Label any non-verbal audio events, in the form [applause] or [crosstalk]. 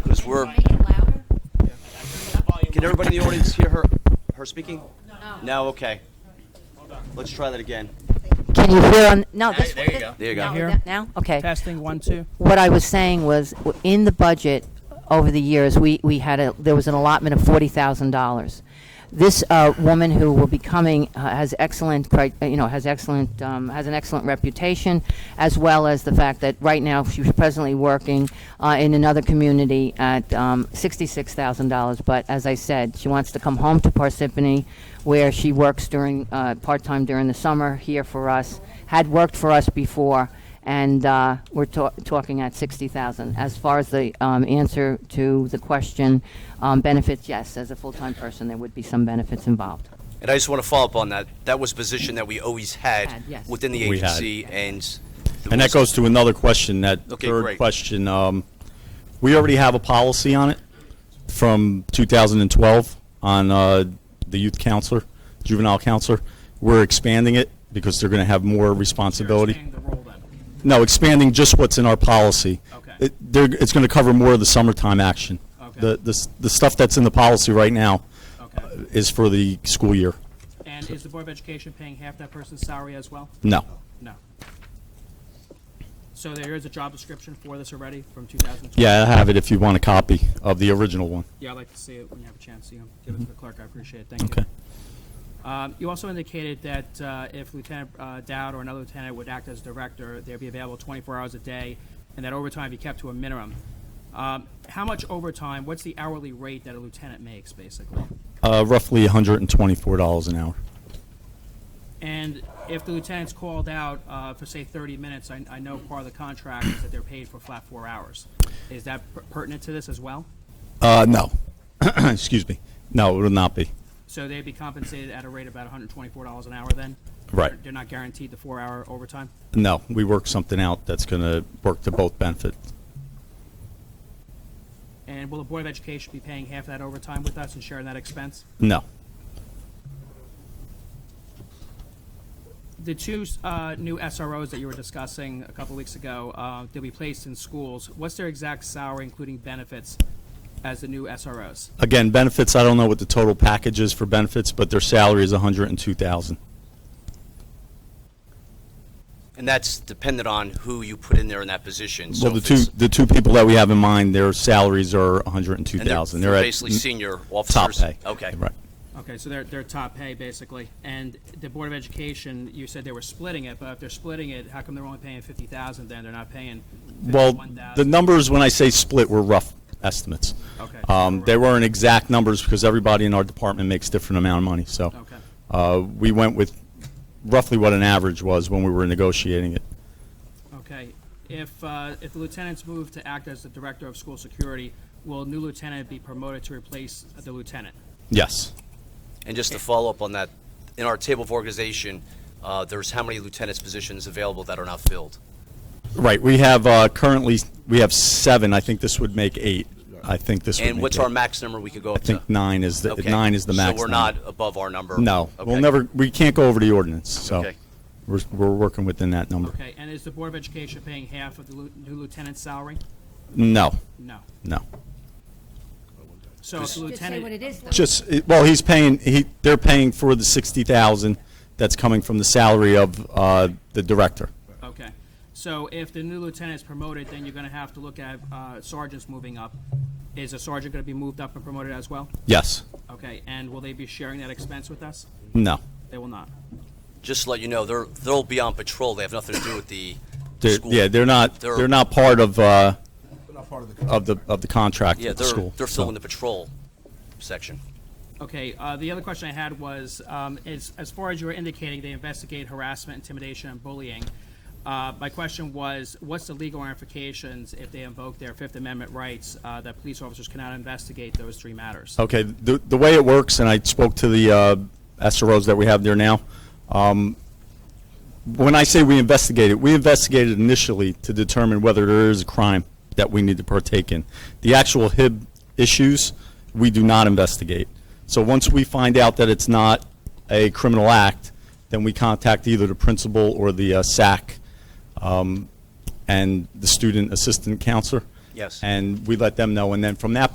Did everybody in the audience hear her, her speaking? No. No, okay. Let's try that again. Can you hear on, no, Hey, this. there you go. There you go. now- Here. Now, okay. Testing, one, two. What I was saying was, w- in the budget over the years, we, we had a, there was an allotment of forty thousand dollars. This, uh, woman who will be coming uh, has excellent, cri- uh, you know, has excellent, um, has an excellent reputation, as well as the fact that right now she's presently working, uh, in another community at, um, sixty-six thousand dollars. But as I said, she wants to come home to Parsippany, where she works during, uh, part-time during the summer here for us, had worked for us before, and uh, we're ta- talking at 60,000. As far as the um, answer to the question, um, benefits, yes, as a full-time person, there would be some benefits involved. And I just want to follow up on that. That was a position that we always had Had, yes. within the We had. agency and. And that goes to another question, that Okay, third great. question. um, We already have a policy on it from 2012 on uh, the youth counselor, juvenile counselor. We're expanding it because they're going to have more responsibility. No, expanding just what's in our policy. Okay. It- they're- It's going to cover more of the summertime action. Okay. The- The s- the stuff that's in the policy right now Okay. is for the school year. And is the Board of Education paying half that person's salary as well? No. No. So there is a job description for this already from 2012? Yeah, I have it if you want a copy of the original one. Yeah, I'd like to see it when you have a chance, you know, give it to the clerk, I appreciate it, thank you. Okay. Um, You also indicated that uh, if Lieutenant uh, Dowd or another lieutenant would act as director, they'd be available 24 hours a day, and that overtime be kept to a minimum. Um, How much overtime, what's the hourly rate that a lieutenant makes, basically? Uh, Roughly $124 an hour. And if the lieutenant's called out uh, for, say, 30 minutes, I I know part of the contract is that they're paid for flat four hours. Is that per- pertinent to this as well? Uh, no. [clears throat] Excuse me. No, it will not be. So they'd be compensated at a rate of about $124 an hour then? Right. They're not guaranteed the four-hour overtime? No, we work something out that's going to work to both benefit. And will the Board of Education be paying half that overtime with us and sharing that expense? No. The two uh, new SROs that you were discussing a couple weeks ago, uh, they'll be placed in schools. What's their exact salary, including benefits, as the new SROs? Again, benefits, I don't know what the total package is for benefits, but their salary is 102000 And that's dependent on who you put in there in that position. So Well, the if two, it's- the two people that we have in mind, their salaries are 102000 And they're- they're at basically m- senior Top officers. pay. Okay. Right. Okay, so they're, they're top pay, basically. And the Board of Education, you said they were splitting it, but if they're splitting it, how come they're only paying 50,000 then? They're not paying Well, the 51,000? numbers, when I say split, were rough estimates. Okay. Um, They weren't exact numbers because everybody in our department makes different amount of money, so. Okay. Uh, we went with roughly what an average was when we were negotiating it. Okay, if, uh, if the lieutenant's moved to act as the director of school security, will a new lieutenant be promoted to replace the lieutenant? Yes. And just to follow up on that, in our table of organization, uh, there's how many lieutenant's positions available that are not filled? Right, we have, uh, currently, we have seven, I think this would make eight. I think this would make And what's our eight. max number we could go up I to? think nine is, the Okay. nine is the max. So we're number. not above our number? No, we'll Okay. never, we can't go over the ordinance, so. Okay. We're, we're working within that number. Okay, and is the Board of Education paying half of the lu- new lieutenant's salary? No, No. no. So if the lieutenant, is, Just, it- well, he's paying, he, they're paying for the sixty thousand that's coming from the salary of, uh, the director. okay, so if the new lieutenant is promoted, then you're gonna have to look at uh, sergeants moving up. Is a sergeant gonna be moved up and promoted as well? Yes, Okay, and will they be sharing that expense with us? no. They will not. Just to let you know, they're, they'll be on patrol. They have nothing to do with the They're, school. yeah, they're not, They're- they're not part of, uh, Not part of the. of the, of the contract Yeah, with the they're, school. they're so. filling the patrol section. Okay, uh, the other question I had was, um, is, as far as you were indicating, they investigate harassment, intimidation, and bullying. Uh, my question was, what's the legal ramifications if they invoke their Fifth Amendment rights, uh, that police officers cannot investigate those three matters? Okay, the, the way it works, and I spoke to the uh, SROs that we have there now, um, when I say we investigated, we investigated initially to determine whether there is a crime that we need to partake in. The actual HIB issues, we do not investigate. So once we find out that it's not a criminal act, then we contact either the principal or the uh, SAC um, and the student assistant counselor. Yes. And we let them know, and then from that